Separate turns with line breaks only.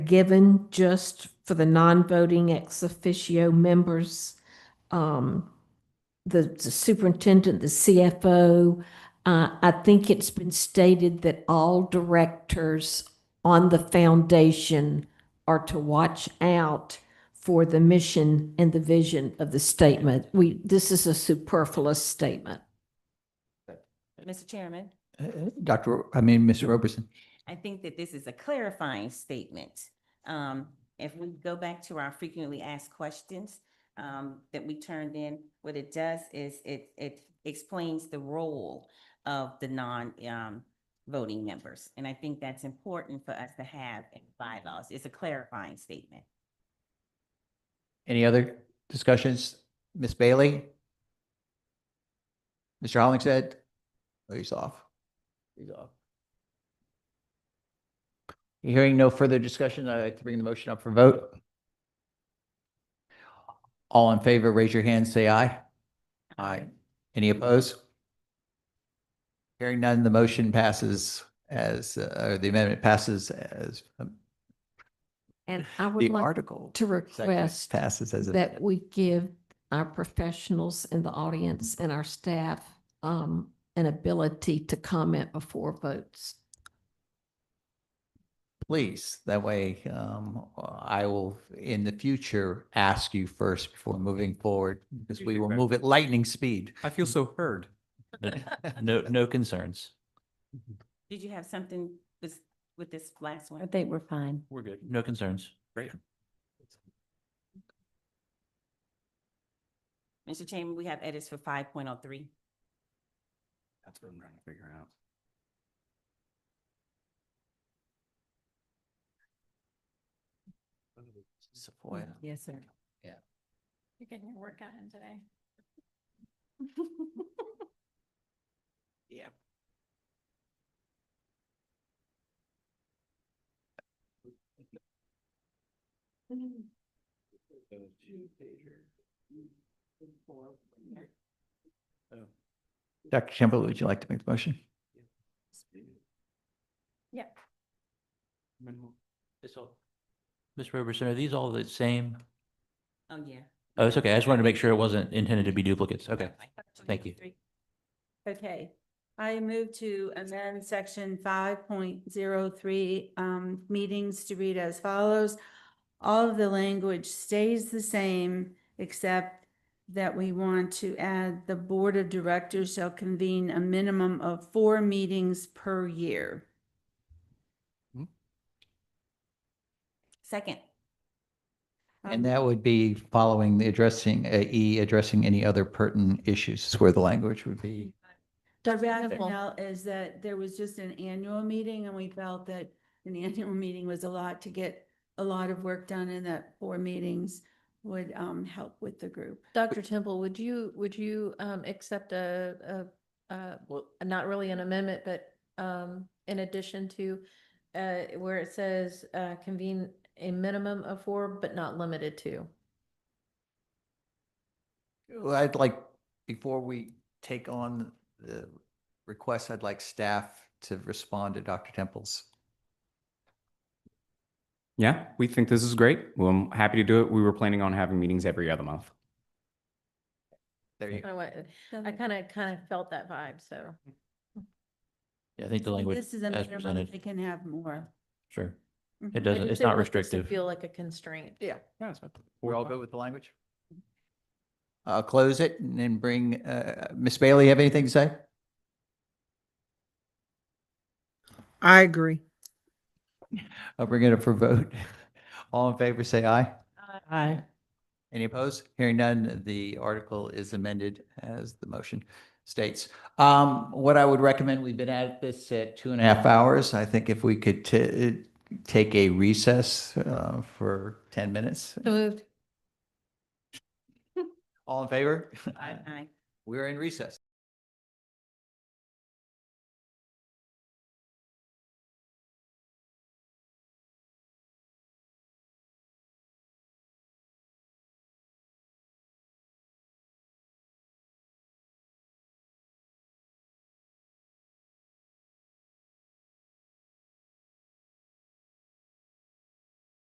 given just for the non-voting ex officio members, um, the the superintendent, the CFO. Uh, I think it's been stated that all directors on the foundation are to watch out for the mission and the vision of the statement. We, this is a superfluous statement.
Mr. Chairman,
Uh, Dr., Ro- I mean, Mr. Roberson,
I think that this is a clarifying statement. Um, if we go back to our frequently asked questions, um, that we turned in, what it does is it, it explains the role of the non, um, voting members. And I think that's important for us to have in bylaws. It's a clarifying statement.
any other discussions? Ms. Bailey? Mr. Hollingshead? Oh, he's off. He's off. Hearing no further discussion, I'd like to bring the motion up for vote. All in favor, raise your hand, say aye. Aye. Any opposed? Hearing none, the motion passes as, uh, or the amendment passes as, um,
And I would
the
like
article.
to
section
request
Passes as. amended.
that we give our professionals in the audience and our staff um, an ability to comment before votes.
Please, that way, um, I will in the future ask you first before moving forward, because we will move at lightning speed.
I feel so heard.
No, no concerns.
Did you have something with, with this last one?
think we're fine.
We're good. No concerns.
Mr. Chairman, we have edits for five point oh three.
That's what I'm trying to figure out.
Sequoia.
Yes, sir.
You're getting your workout in today.
Dr. Campbell, would you like to make the motion?
Yeah.
It's all- Ms. Roberson, are these all the same?
Oh, yeah.
Oh, it's okay. I just wanted to make sure it wasn't intended to be duplicates. Okay. Thank you.
Okay, I move to amend section five point zero three, um, meetings to read as follows. All of the language stays the same, except that we want to add the board of directors shall convene a minimum of four meetings per year.
Second.
And
Um,
that would be following the addressing, uh, E, addressing any other pertinent issues is where the language would be.
The
Dr. Neville.
rationale is that there was just an annual meeting and we felt that an annual meeting was a lot to get a lot of work done and that four meetings would um help with the group.
Dr. Temple, would you, would you um accept a, a, uh, well, not really an amendment, but um in addition to uh where it says uh convene a minimum of four, but not limited to?
Well, I'd like, before we take on the request, I'd like staff to respond to Dr. Temple's.
Yeah, we think this is great. Well, I'm happy to do it. We were planning on having meetings every other month.
There you go.
Kinda what- I kind of, kind of felt that vibe, so.
Yeah, I think the language
This is a
as
minimum,
presented.
they can have more.
Sure. It
Mhm.
I
doesn't,
just
it's
didn't
not
want this to
restrictive.
Feel like a constraint.
Yeah.
Yeah.
We're all good with the language? I'll close it and then bring, uh, Ms. Bailey, have anything to say?
I agree.
I'll bring it up for vote. All in favor, say aye.
Aye.
Any opposed? Hearing none, the article is amended as the motion states. Um, what I would recommend, we've been at this at two and a half hours. I think if we could t- uh, take a recess, uh, for ten minutes.
So Moved.
All in favor?
Aye.
We're in recess.